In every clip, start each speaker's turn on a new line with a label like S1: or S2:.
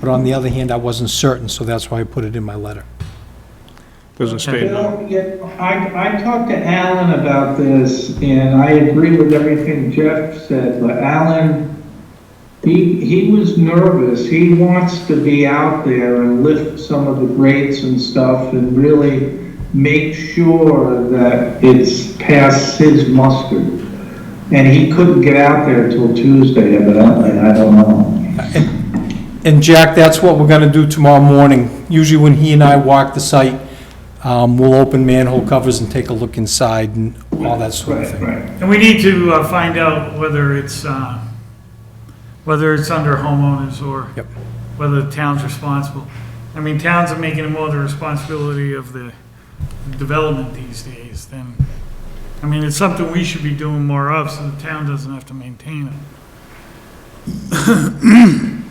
S1: But on the other hand, I wasn't certain, so that's why I put it in my letter.
S2: Doesn't
S3: You
S2: state, no.
S3: know, yeah, I, I talked to Alan about this, and I agree with everything Jeff said, but Alan, he, he was nervous, he wants to be out there and lift some of the grates and stuff and really make sure that it's past his muster. And he couldn't get out there till Tuesday evidently, I don't know.
S1: And Jack, that's what we're gonna do tomorrow morning. Usually when he and I walk the site, um, we'll open manhole covers and take a look inside and all that sort of
S3: Right,
S1: thing.
S3: right.
S4: And we need to uh, find out whether it's, uh, whether it's under homeowners or
S1: Yep.
S4: whether the town's responsible. I mean, towns are making it more the responsibility of the development these days than, I mean, it's something we should be doing more of, so the town doesn't have to maintain it.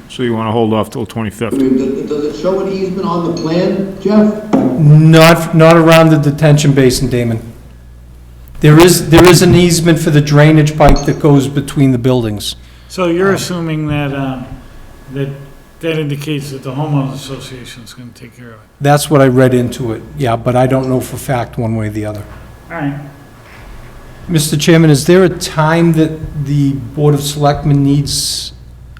S2: so you want to hold off till 25th?
S5: Does does it show an easement on the plan, Jeff?
S1: Not, not around the detention basin, Damon. There is, there is an easement for the drainage pipe that goes between the buildings.
S4: So you're assuming that, um, that, that indicates that the homeowners association is gonna take care of it.
S1: That's what I read into it, yeah, but I don't know for fact one way or the other.
S4: All right,
S1: Mr. Chairman, is there a time that the Board of Selectmen needs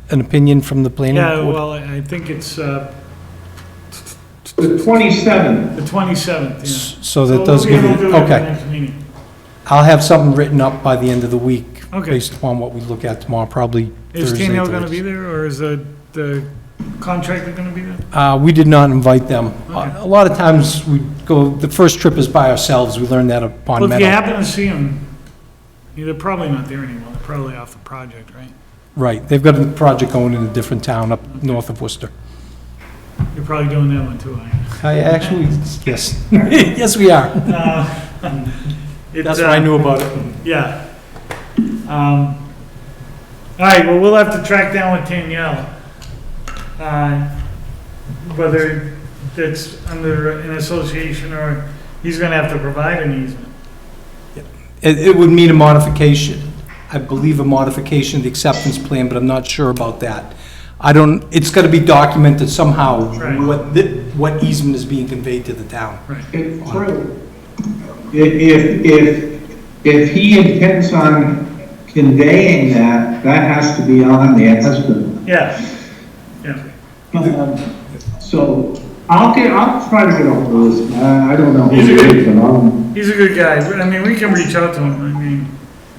S1: an opinion from the planning
S4: yeah,
S1: board?
S4: well, I I think it's uh,
S3: The twenty-seventh,
S4: the 27th, yeah.
S1: S- So that does give
S4: We'll be
S1: you,
S4: able to do it at the
S1: okay.
S4: next meeting.
S1: I'll have something written up by the end of the week,
S4: Okay.
S1: based upon what we look at tomorrow, probably
S4: Is
S1: Thursday.
S4: Tino going to
S1: the
S4: be there, or is the, the contractor going to be there?
S1: latest. Uh, we did not invite them. Uh,
S4: Okay.
S1: A a lot of times, we go, the first trip is by ourselves, we learned that upon
S4: Well, if you
S1: Meadow.
S4: happen to see him, yeah, they're probably not there anymore, they're probably off the project, right?
S1: Right, they've got a project going in a different town up north of Worcester.
S4: You're probably doing that one too, aren't you?
S1: I actually, yes, yes, we are.
S4: It,
S1: That's what I
S4: uh,
S1: knew about it.
S4: Yeah. Um, All right, well, we'll have to track down with Danielle, uh, whether it's under an association or he's going to have to provide an easement.
S1: It, it would mean a modification, I believe a modification of the acceptance plan, but I'm not sure about that. I don't, it's gotta be documented somehow,
S4: Right.
S1: what, thi- what easement is being conveyed to the town.
S3: It's true. If, if, if he intends on conveying that, that has to be on the husband.
S4: Yeah, yeah.
S3: Um, So I'll get, I'll try to get ahold of this, I I don't know. Um, who
S4: He's a
S3: it
S4: good-
S3: is, but I'll-
S4: He's a good guy. I mean, we can reach out to him. I mean,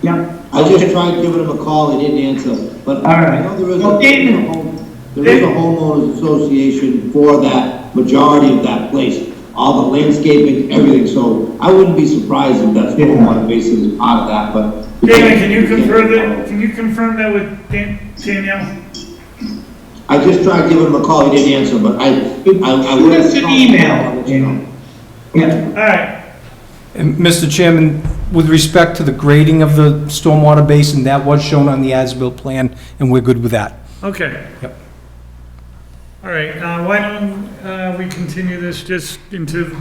S3: Yeah,
S5: I just tried giving him a call, he didn't answer, but
S3: all
S5: I know
S3: right.
S5: there is
S3: Well, David,
S5: a, there is a homeowners association for that, majority of that place, all the landscaping, everything, so I wouldn't be surprised if that's
S3: Yeah.
S5: one basis is part of that, but.
S4: David, can you confirm that, can you confirm that with Dan- Danielle?
S5: I just tried giving him a call, he didn't answer, but I, I, I
S3: Shoot
S5: would.
S3: us an email, you know. Yeah,
S4: All right,
S1: And Mr. Chairman, with respect to the grading of the stormwater basin, that was shown on the as-built plan, and we're good with that.
S4: okay.
S1: Yep.
S4: All right, uh, why don't, uh, we continue this just into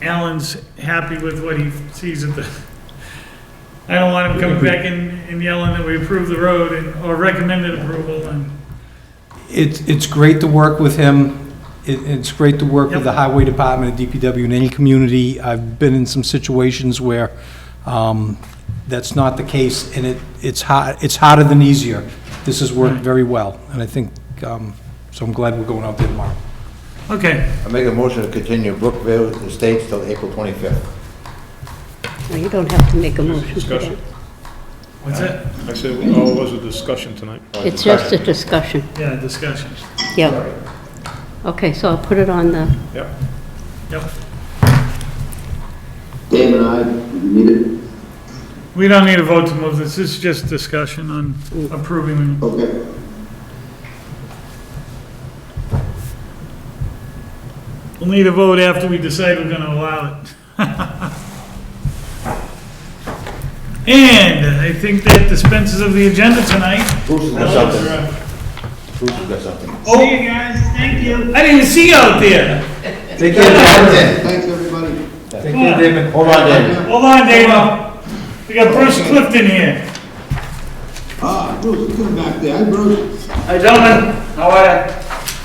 S4: Alan's happy with what he sees at the, I don't want him coming back and, and yelling that we approve the road and, or recommended approval and,
S1: It's, it's great to work with him. It, it's great to work with the
S4: Yep.
S1: highway department, and DPW, in any community. I've been in some situations where, um, that's not the case, and it, it's hard, it's harder than easier. This has worked very well, and I think, um, so I'm glad we're going out there tomorrow.
S4: okay.
S6: I make a motion to continue Brookville Estates till April 25th.
S7: Well, you don't have to make a motion for
S2: Discussion.
S7: that.
S4: What's that?
S2: I said, oh, it was a discussion tonight.
S7: It's just a discussion,
S4: Yeah, discussion.
S7: yeah. Okay, so I'll put it on the,
S2: Yep.
S4: Yep.
S5: Dave and I, you need it?
S4: We don't need a vote to move this. This is just discussion on approving
S5: Okay.
S4: We'll need a vote after we decide we're gonna allow it. And I think that dispenses of the agenda tonight.
S6: Bruce has got something. Bruce has got something.
S3: Oh. see you guys, thank you.
S4: I didn't see you out there.
S1: Take care, David.
S5: Thanks, everybody.
S1: Take care, David.
S6: Hold on, David.
S4: Hold on, Dave. We got Bruce Clifton here.
S5: Ah, Bruce, you come back there, hi Bruce.
S4: Hi, gentlemen. How are you?